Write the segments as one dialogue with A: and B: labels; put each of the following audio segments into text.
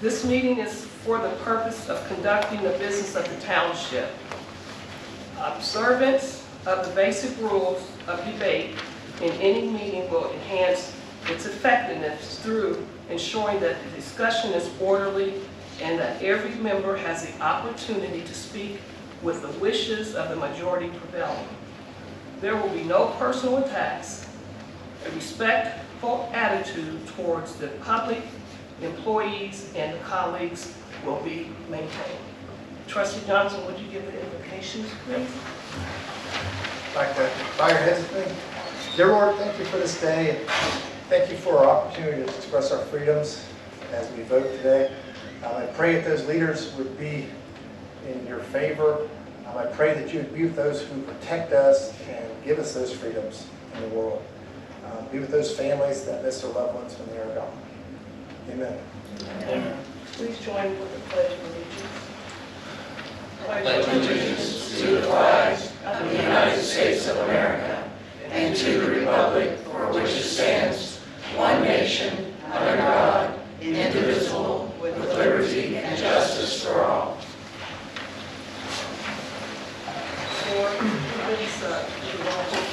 A: This meeting is for the purpose of conducting the business of the township. Observance of the basic rules of debate in any meeting will enhance its effectiveness through ensuring that the discussion is orderly and that every member has the opportunity to speak with the wishes of the majority prevailing. There will be no personal attacks, a respectful attitude towards the public, employees, and colleagues will be maintained. Trustee Johnson, would you give the invocations, please?
B: like the fire hazard thing. Dear Lord, thank you for this day, and thank you for our opportunity to express our freedoms as we vote today. Um, I pray that those leaders would be in your favor. Um, I pray that you would be with those who protect us and give us those freedoms in the world. Um, Be with those families that miss their loved ones when they are gone. Amen.
A: Please join with the pledge of allegiance.
C: pledge allegiance to the flag of the United States of America and to the republic for which it stands, one nation, under God, indivisible, with liberty and justice for all.
A: For Lisa Duval.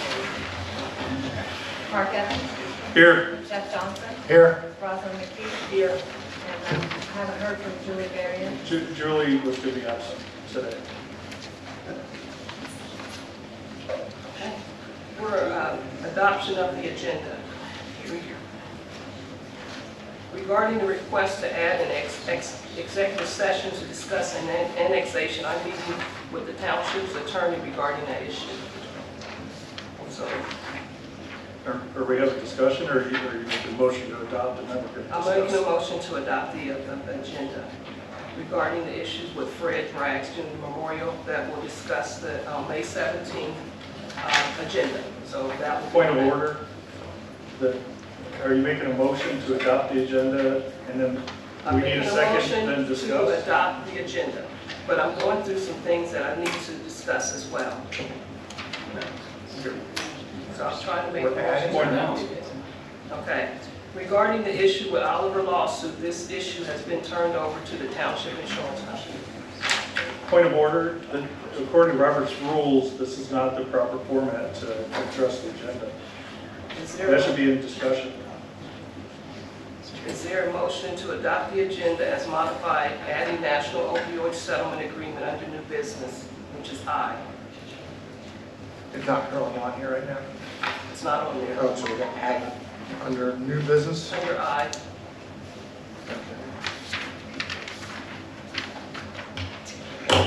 D: Mark Evans,
B: Here.
D: Jeff Johnson,
B: Here.
D: Rosalind McKee,
A: Here,
D: and um, I haven't heard from Julie Varian.
E: Ju- Julie was to be absent today.
A: we're um, adoption of the agenda. Regarding the request to add an ex- ex- executive session to discuss an an- annexation, I'm meeting with the township's attorney regarding that issue. So
E: Are are we having Er, a discussion, or you are you making a motion to adopt and then we're going to
A: I'm making a
E: discuss?
A: motion to adopt the uh, agenda regarding the issues with Fred Rags Jr. Memorial that will discuss the uh, May 17th uh, agenda. So that will. be-
E: Point of order, that, are you making a motion to adopt the agenda, and then
A: I'm
E: we need
A: making
E: a
A: motion
E: second, then
A: To
E: discuss?
A: adopt the agenda, but I'm going through some things that I need to discuss as well. So I'm trying to make. a motion.
E: Point now.
A: Okay. Regarding the issue with Oliver lawsuit, this issue has been turned over to the township insurance company.
E: Point of order, that according to Robert's rules, this is not the proper format to address the agenda.
A: Is there?
E: That should be in discussion.
A: Is there a motion to adopt the agenda as modified, adding national opioid settlement agreement under new business, which is I?
B: It's not currently on here right now.
A: It's not on there.
B: Oh, so we're going to add it under new business?
A: Under I,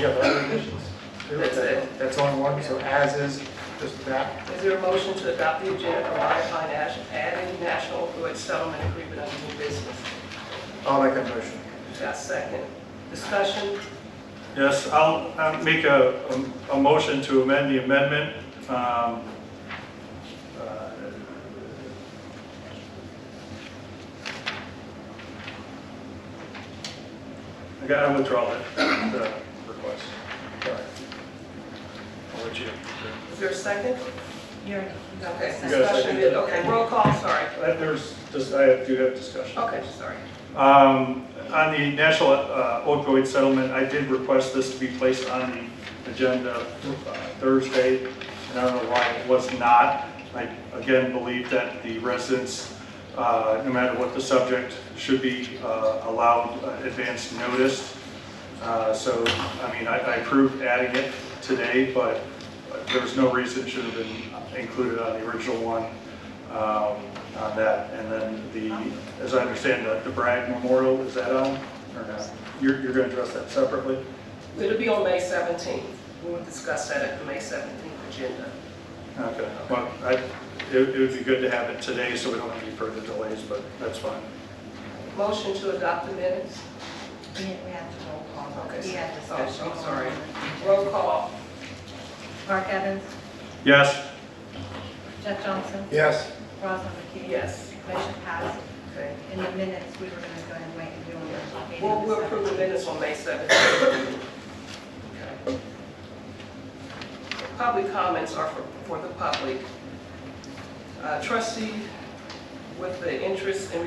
B: You have other additions?
A: That's it.
B: That's only one, so as is, just that.
A: is there a motion to adopt the agenda for modifying, nas- adding national opioid settlement agreement under new business?
B: I'll make that motion.
A: Got a second? Discussion?
E: Yes, I'll I'll make a, a a motion to amend the amendment. um, uh, I got, I withdraw that, the request. Sorry. I'll let you.
A: Is there a second?
D: You're, you got
A: Okay,
D: this.
E: You got a
A: discussion,
E: second.
A: is- okay, roll call, sorry.
E: Uh, There's, just- I do have discussion.
A: Okay, sorry.
E: Um, On the national uh, opioid settlement, I did request this to be placed on the agenda uh, Thursday, and I don't know why it was not. I, again, believe that the residents, uh, no matter what the subject, should be uh, allowed uh, advance notice. Uh, So, I mean, I I approved adding it today, but there was no reason it should have been included on the original one um, on that. And then the, as I understand, the- the Bragg Memorial, is that on or not? You're, you're going to address that separately?
A: It'll be on May 17th. We will discuss that at the May 17th agenda.
E: Okay. Well, I, it it would be good to have it today so we don't have any further delays, but that's fine.
A: Motion to adopt the minutes?
D: We we have to roll call.
A: Okay.
D: We have
A: Oh,
D: discussion.
A: I'm sorry. Roll call.
D: Mark Evans,
E: Yes?
D: Jeff Johnson,
B: Yes.
D: Rosalind McKee.
A: Yes.
D: Motion passed.
A: Okay.
D: In the minutes, we were going to go ahead and wait and do a meeting.
A: We'll, we'll approve the minutes on May 17th. Okay. Public comments are for, for the public. Uh, Trustee, with the interest and